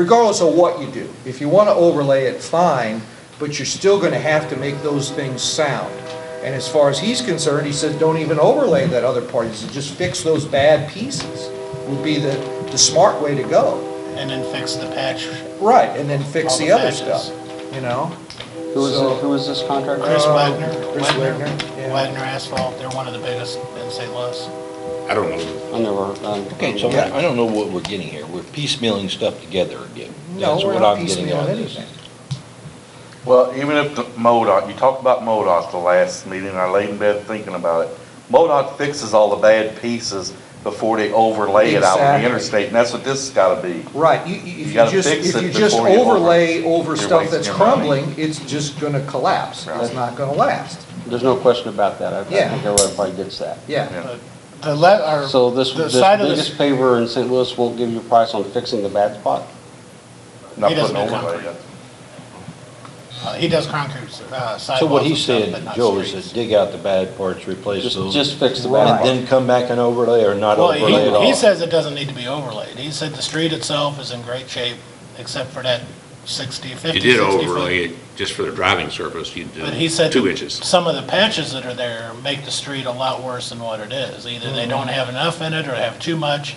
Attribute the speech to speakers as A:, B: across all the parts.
A: regardless of what you do. If you want to overlay it, fine, but you're still going to have to make those things sound. And as far as he's concerned, he says, don't even overlay that other part. He says, just fix those bad pieces would be the, the smart way to go.
B: and then fix the patch.
A: Right, and then fix
B: All the
A: the other
B: patches.
A: stuff, you know?
C: Who was,
A: So-
C: it- who was this contractor?
B: Chris
A: Uh,
B: Wagner,
A: Chris
B: Wagner,
A: Wagner, yeah.
B: Wagner Asphalt, they're one of the biggest in St. Louis.
D: I don't know.
C: I never, um,
E: Okay, so
A: Yeah.
E: I don't know what we're getting here. We're piecemealing stuff together again.
A: No,
E: That's
A: we're
E: what
A: not
E: I'm getting
A: piecemeal
E: on this.
A: anything.
F: Well, even if the MoDOT, you talked about MoDOT the last meeting, and I laid in bed thinking about it. MoDOT fixes all the bad pieces before they overlay it out on
A: Exactly.
F: the interstate, and that's what this has gotta be.
A: Right, you, you,
F: You
A: if you
F: gotta
A: just,
F: fix
A: if
F: it
A: you just
F: before you over-
A: overlay over
F: you're
A: stuff that's
F: wasting your money.
A: crumbling, it's just gonna collapse. It's
F: Right.
A: not gonna last,
C: there's no question about that. I I
A: Yeah.
C: think everybody gets that.
A: yeah.
B: The le, our,
C: So this,
B: the
C: this
B: side of this,
C: biggest paver in St. Louis won't give you a price on fixing the bad spot?
F: Not
B: He doesn't
F: putting
B: do
F: overlay
B: concrete.
F: in.
B: uh, he does concrete uh, sidewalks.
E: So what
B: and
E: he's
B: stuff,
E: saying,
B: but not
E: Joe, is
B: streets.
E: to dig out the bad parts, replace
C: Just,
E: those, and
C: just fix the bad
A: Right.
C: part.
E: then come back and overlay or not
B: Well,
E: overlay at
B: he, he
E: all?
B: says it doesn't need to be overlaid. He said the street itself is in great shape, except for that 60, 50, 60 foot.
D: You did overlay it just for the driving surface, you
B: But he said.
D: did two inches.
B: Some of the patches that are there make the street a lot worse than what it is. Either they don't have enough in it or have too much.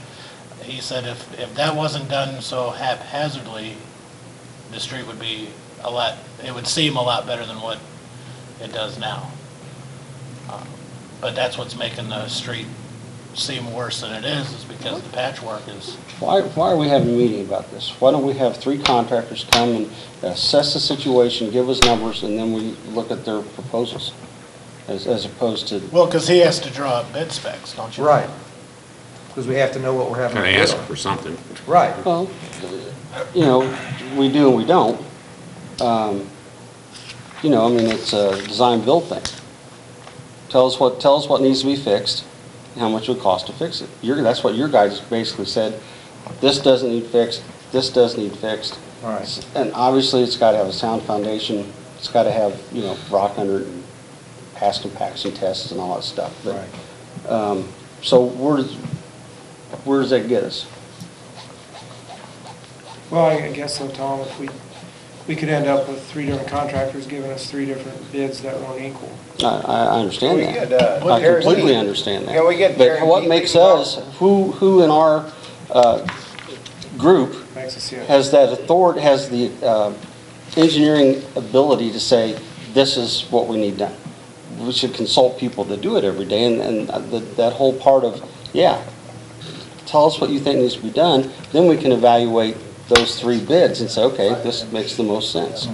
B: He said if, if that wasn't done so haphazardly, the street would be a lot, it would seem a lot better than what it does now. Um, But that's what's making the street seem worse than it is, is because the patchwork is.
C: Why, why are we having a meeting about this? Why don't we have three contractors come and assess the situation, give us numbers, and then we look at their proposals? As, as opposed to,
B: Well, because he has to draw up bid specs, don't you?
A: Right, because we have to know what we're having
D: Kind
A: to
D: of ask
A: do.
D: for something.
A: Right,
C: well, you know, we do and we don't. Um, You know, I mean, it's a design-build thing. Tell us what, tell us what needs to be fixed, and how much it would cost to fix it. Your, that's what your guys basically said, this doesn't need fixed, this does need fixed.
A: all right.
C: And obviously, it's got to have a sound foundation, it's got to have, you know, rock under it, and past compaction tests and all that stuff. But,
A: Right.
C: um, so where does, where does that get us?
G: Well, I I guess so, Tom, if we, we could end up with three different contractors giving us three different bids that weren't equal.
C: I, I I understand
H: We
C: that.
H: could, uh,
C: I
H: guarantee-
C: completely understand that.
H: Yeah, we get
C: But what
H: guaranteed
C: makes
H: people.
C: us, who, who in our, uh, group
G: Makes us, yeah.
C: has that authority, has the, uh, engineering ability to say, this is what we need done. We should consult people that do it every day, and, and the- that whole part of, yeah, tell us what you think needs to be done, then we can evaluate those three bids and say, okay, this makes the most sense.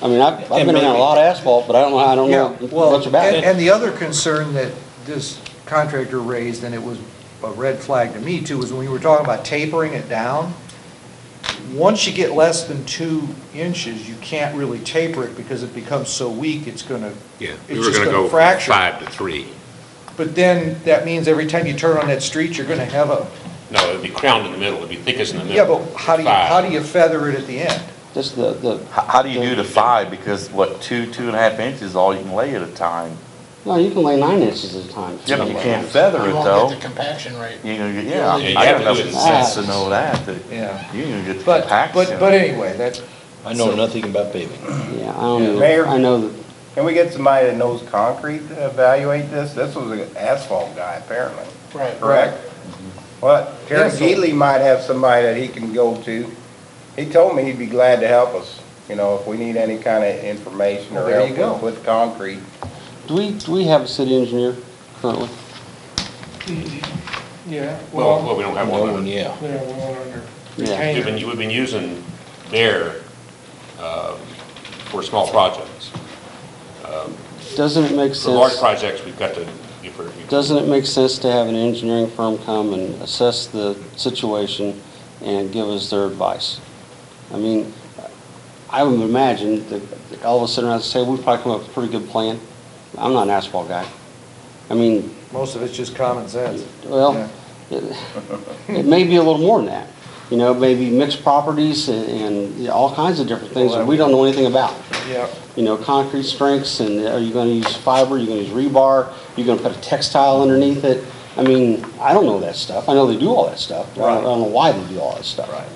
C: I mean, I've, I've been around a lot of asphalt, but I don't, I don't
A: Yeah,
C: know
A: well,
C: much
A: and,
C: about it.
A: and the other concern that this contractor raised, and it was a red flag to me too, was when we were talking about tapering it down. Once you get less than two inches, you can't really taper it because it becomes so weak, it's gonna,
D: Yeah, we
A: it's
D: were
A: just
D: gonna
A: gonna
D: go
A: fracture.
D: five to three.
A: But then, that means every time you turn on that street, you're gonna have a,
D: No, it'd be crowned in the middle, it'd be thickest in the
A: yeah,
D: middle.
A: but how do you,
D: Five.
A: how do you feather it at the end?
C: Just the, the,
F: How, how do you do the five? Because what, two, two and a half inches is all you can lay at a time.
C: no, you can lay nine inches at a time.
F: Yeah, but you can't feather it
B: You
F: though.
B: won't get the compaction rate.
F: You know, yeah,
D: Yeah, you
F: I
D: have
F: got
D: to
F: enough
D: do it in
F: sense to
C: sets.
F: know that, that
A: Yeah.
F: you can get
A: But,
F: the
A: but,
F: compaction.
A: but anyway, that,
E: I know nothing about paving.
C: Yeah, I don't know,
H: Mayor?
C: I know that,
H: Can we get somebody that knows concrete to evaluate this? This was an asphalt guy apparently,
B: Right.
H: correct? Well, Terry
A: Yes.
H: Geely might have somebody that he can go to. He told me he'd be glad to help us, you know, if we need any kind of information
A: Well,
H: or
A: there you
H: help
A: go.
H: with- with concrete.
C: do we, do we have a city engineer currently?
G: Yeah,
D: Well,
G: well,
D: well, we don't have
E: Well,
D: one.
E: yeah.
G: yeah, we want under
C: Yeah.
D: We've
G: retainer.
D: been, we've been using their, uh, for small projects.
C: Doesn't it make
D: For large
C: sense,
D: projects, we've got to, if we're, if-
C: doesn't it make sense to have an engineering firm come and assess the situation and give us their advice? I mean, I would imagine that all of us sitting around and say, we probably come up with a pretty good plan. I'm not an asphalt guy. I mean,
A: most of it's just common sense.
C: Well, it it may be a little more than that, you know, maybe mixed properties and- and all kinds of different things that we don't know anything about.
A: Yeah,
C: You know, concrete strengths, and are you gonna use fiber, you gonna use rebar, you gonna put a textile underneath it? I mean, I don't know that stuff, I know they do all that stuff, but I don't I don't know why they do all that stuff.
A: Right.